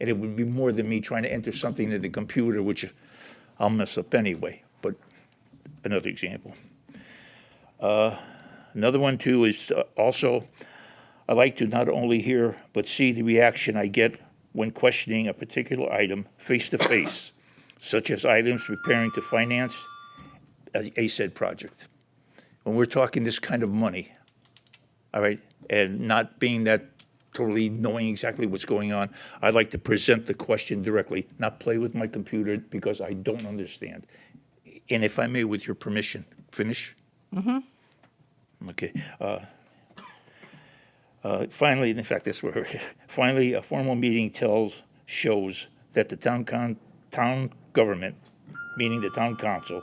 and it would be more than me trying to enter something into the computer, which I'll mess up anyway, but another example. Uh, Another one, too, is uh, also, I like to not only hear, but see the reaction I get when questioning a particular item face-to-face, such as items preparing to finance a a said project. When we're talking this kind of money, all right, and not being that totally knowing exactly what's going on. I'd like to present the question directly, not play with my computer because I don't understand. And if I may, with your permission, finish? Mm-hmm. Okay. uh, uh, Finally, in fact, that's where, finally, a formal meeting tells, shows that the town con, town government, meaning the town council,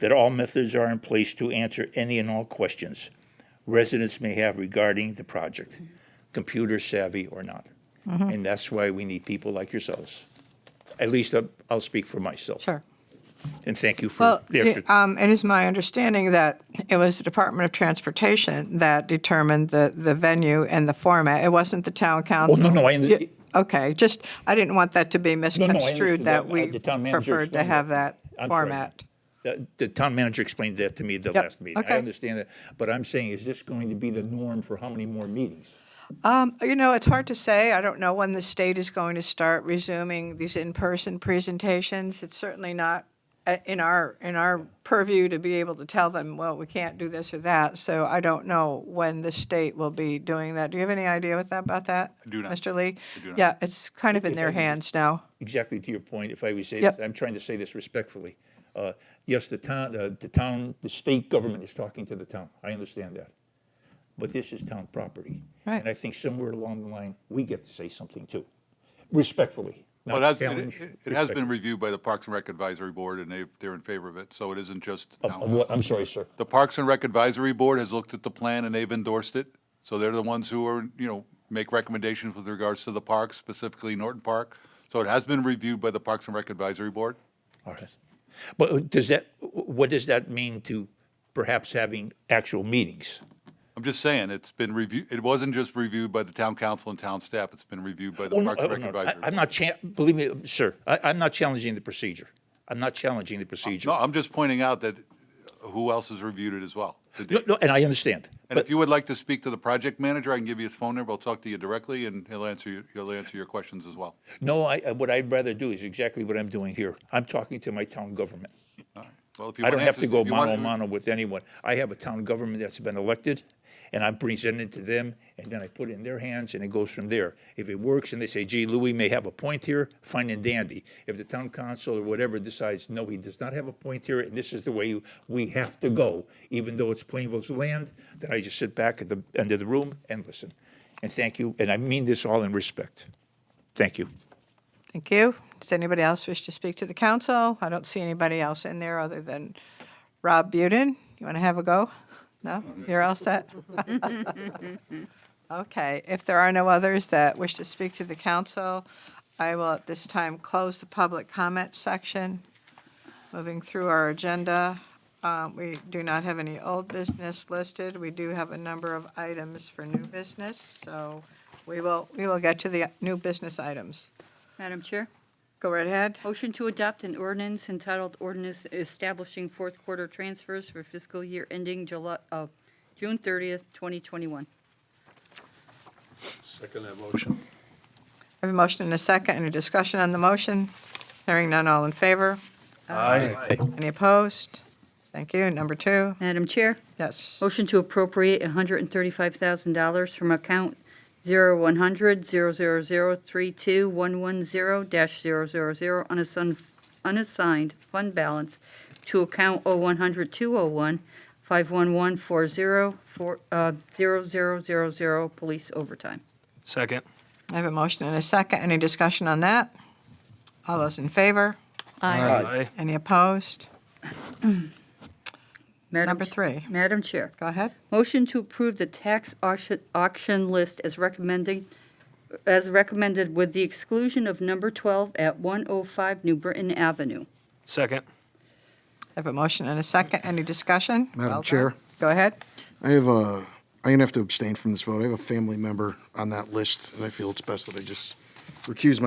that all methods are in place to answer any and all questions residents may have regarding the project, computer savvy or not. Mm-hmm. And that's why we need people like yourselves. At least I'll, I'll speak for myself. Sure. And thank you for Well, the it- effort. um, it is my understanding that it was the Department of Transportation that determined the, the venue and the format. It wasn't the town council. Oh, no, no, I under- You- Okay, just, I didn't want that to be no, I misconstrued understood that that. we Uh, the town manager preferred to explained have that. that I'm sorry. format. The, the town manager explained that to me at the Yep, last meeting. I okay. understand that, but I'm saying, is this going to be the norm for how many more meetings? You know, it's hard to say. I don't know when the state is going to start resuming these in-person presentations. It's certainly not uh, in our, in our purview to be able to tell them, well, we can't do this or that. So I don't know when the state will be doing that. Do you have any idea what that, about that? I do not. Mr. Lee? I do not. Yeah, it's kind of in I their could just- hands now. Exactly to your point, if I would say Yep. this, I'm trying to say this respectfully. Uh, Yes, the town, uh, the town, the state government is talking to the town. I understand that. But this is town property. Right. And I think somewhere along the line, we get to say something too, respectfully. Well, not it has, challenge, it- it- it has been respectfully. reviewed by the Parks and Rec Advisory Board, and they've, they're in favor of it, so it isn't just Uh, the town uh, council. what- I'm sorry, sir. The Parks and Rec Advisory Board has looked at the plan and they've endorsed it, so they're the ones who are, you know, make recommendations with regards to the parks, specifically Norton Park. So it has been reviewed by the Parks and Rec Advisory Board. All right. But uh, does that, what does that mean to perhaps having actual meetings? I'm just saying, it's been reviewed, it wasn't just reviewed by the town council and town staff, it's been reviewed by Oh, the no, Parks and oh, Rec no, Advisory. I- I'm Board. not, cha- believe me, sir, I, I'm not challenging the procedure. I'm not challenging the procedure. No, I'm just pointing out that who else has reviewed it as well? The No, no, and I understand. And But, if you would like to speak to the project manager, I can give you his phone number. I'll talk to you directly, and he'll answer you, he'll answer your questions as well. no, I, I- what I'd rather do is exactly what I'm doing here. I'm talking to my town government. Well, if you I want don't have answers- to if go you want- mano a mano with anyone. I have a town government that's been elected, and I'm presenting it to them, and then I put it in their hands, and it goes from there. If it works and they say, gee, Louis may have a point here, fine and dandy. If the town council or whatever decides, no, he does not have a point here, and this is the way we have to go, even though it's Plainville's land, then I just sit back at the end of the room and listen. And thank you, and I mean this all in respect. Thank you. Thank you. Does anybody else wish to speak to the council? I don't see anybody else in there other than Rob Budin. You want to have a go? No? You're all set? Okay, if there are no others that wish to speak to the council, I will at this time close the public comment section. Moving through our agenda, uh, we do not have any old business listed. We do have a number of items for new business, so we will, we will get to the new business items. Madam Chair, Go right ahead. motion to adopt an ordinance entitled ordinance establishing fourth quarter transfers for fiscal year ending July, uh, June 30th, 2021. Second that motion. I have a motion and a second. Any discussion on the motion? Hearing none, all in favor? Aye. Any opposed? Thank you. Number two, Madam Chair, yes. motion to appropriate $135,000 from account 0100-000-32110-000 unassigned- unassigned fund balance to account uh, 0100201-51140-0000, police overtime. Second. I have a motion and a second. Any discussion on that? All those in favor? Aye. Any opposed? Madam Number Ch- three. Madam Chair. Go ahead. Motion to approve the tax auction- auction list as recommending, as recommended with the exclusion of number 12 at 105 New Britain Avenue. Second. I have a motion and a second. Any discussion? Madam Well done. Chair. Go ahead. I have a, I'm gonna have to abstain from this vote. I have a family member on that list, and I feel it's best that I just recuse myself